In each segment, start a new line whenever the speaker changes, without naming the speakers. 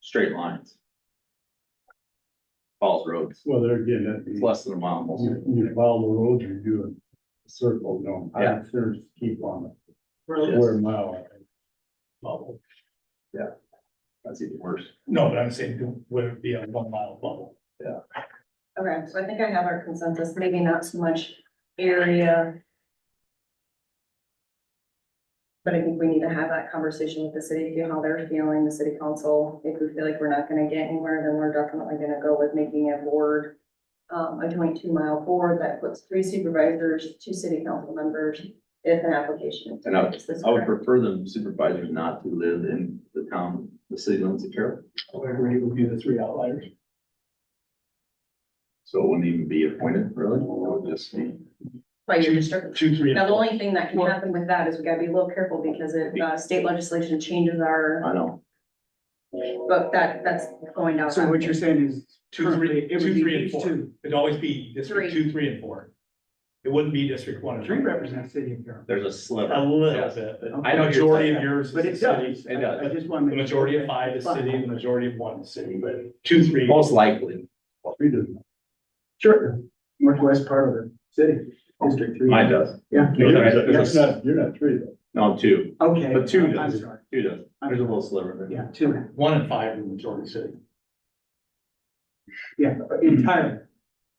straight lines. Falls roads,
Well, there again, that,
it's
you,
less than a mile most of it.
you follow the road, you do a circle, no,
Yeah.
I'm sure just keep on it,
Yes.
quarter mile.
bubble.
That's even worse.
No, but I'm saying, do- would it be a one mile bubble?
Okay, so I think I have our consensus, maybe not so much area. But I think we need to have that conversation with the city, you know, how they're feeling, the city council. If we feel like we're not gonna get anywhere, then we're definitely gonna go with making a board. Um, a twenty-two mile board that puts three supervisors, two city council members, if an application. is
And I-
Is this
I would
correct?
prefer them supervisors not to live in the town, the city limits of Carroll.
However, it would be the three outliers.
So it wouldn't even be appointed, really, it would just be.
By your district.
Two, three. and
Now, the
four.
only thing that can happen with that is we gotta be a little careful because if, uh, state legislation changes our
I know.
But that, that's going down.
So what you're saying is.
Two, three,
currently it would
two,
be
three, and
these
four.
two.
It'd always be district
Three.
two, three, and four. It wouldn't be district one. and
Three represents city of Carroll.
There's a
A
Oh.
sliver.
little
Yes.
bit. but The
I know what you're
majority
saying.
of yours is
But
the
it
city.
does.
It does.
I I just want
The
to.
majority of five is city, the majority of one is city, but two, three.
Most likely,
Three doesn't.
Sure, northwest part of the city, district three.
mine does,
Yeah.
No, there-
That's not, you're not three though.
no, two,
Okay.
But two
I'm
does.
sorry.
two does,
I'm
there's a
sorry.
little sliver there.
Yeah, two,
One and five are the majority city.
yeah, entirely.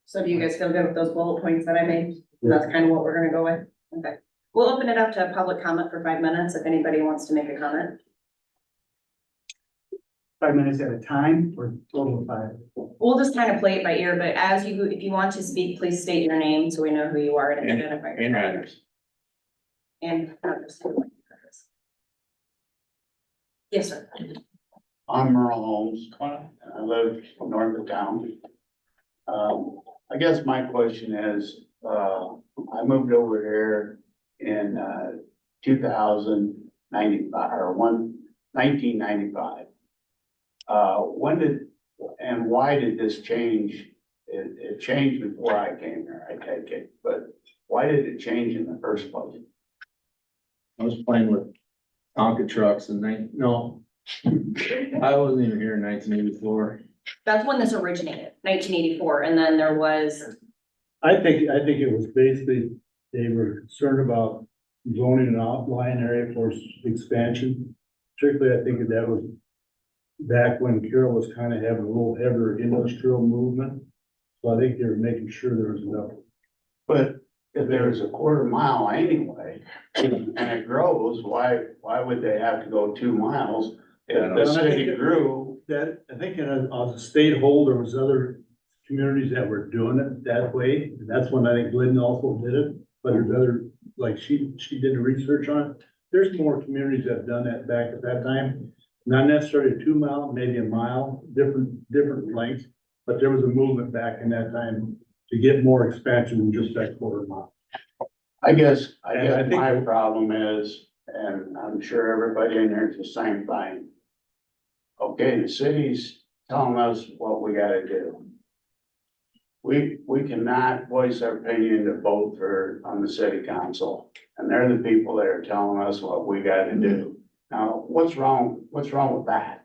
So do you guys feel good with those bullet points that I made? That's kind of what we're gonna go with? Okay. We'll open it up to public comment for five minutes if anybody wants to make a comment.
Five minutes at a time or total of five?
We'll just kind of play it by ear, but as you, if you want to speak, please state your name so we know who you are and
And-
identify. yourself.
And Ryder's,
And. Yes, sir.
I'm Merle Holmes,
Come on.
and I live north of town. Um, I guess my question is, uh, I moved over here in, uh, two thousand ninety-five, or one, nineteen ninety-five. Uh, when did, and why did this change? It, it changed before I came here, I take it, but why did it change in the first place?
I was playing with Tonka trucks and they, no. I wasn't even here in nineteen eighty-four,
That's when this originated, nineteen eighty-four, and then there was,
I think, I think it was basically, they were concerned about zoning an outline area for s- expansion. Particularly, I think that was back when Carroll was kind of having a little heavier industrial movement. So I think they were making sure there was enough
But if there's a quarter mile anyway, and it grows, why, why would they have to go two miles? If the city grew,
That, I think in a, on the state hold, there was other communities that were doing it that way, and that's when I think Glidden also did it. But there's other, like she, she did the research on it, there's more communities that have done that back at that time. Not necessarily a two mile, maybe a mile, different, different lengths, but there was a movement back in that time to get more expansion than just that quarter mile.
I guess, I
And I
guess
think-
my problem is, and I'm sure everybody in there is the same thing. Okay, the city's telling us what we gotta do. We, we cannot voice our opinion to vote for, on the city council, and they're the people that are telling us what we gotta do. Now, what's wrong, what's wrong with that?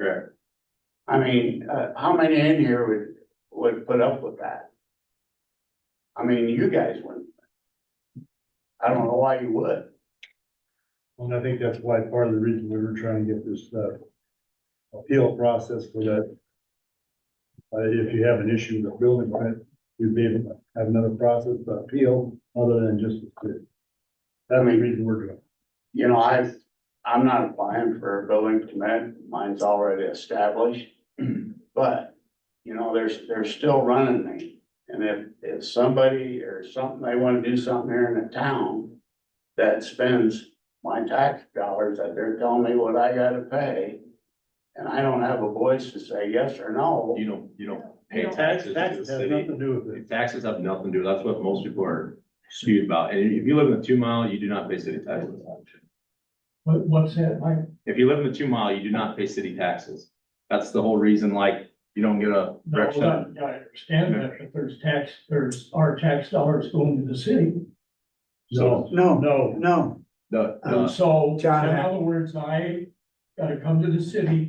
correct,
I mean, uh, how many in here would, would put up with that? I mean, you guys wouldn't. I don't know why you would.
And I think that's why part of the reason we were trying to get this, uh, appeal process for that. Uh, if you have an issue with a building permit, you'd be able to have another process of appeal other than just. That's the reason we're doing. it.
You know, I, I'm not applying for a building permit, mine's already established. But, you know, there's, they're still running me. And if, if somebody or something, they wanna do something here in the town that spends my tax dollars, that they're telling me what I gotta pay, and I don't have a voice to say yes or no.
you don't, you don't
You
pay
don't-
taxes to the
Has
city.
nothing to do with it.
The Taxes have nothing to do, that's what most people are skewed about, and if you live in the two mile, you do not pay city taxes.
What, what's that, Mike?
If you live in the two mile, you do not pay city taxes, that's the whole reason, like, you don't get a
No,
rec
I
center.
I understand that, but there's tax, there's our tax dollars going to the city.
No,
No,
no,
no.
The, the
And so, in
John, I-
other words, I gotta come to the city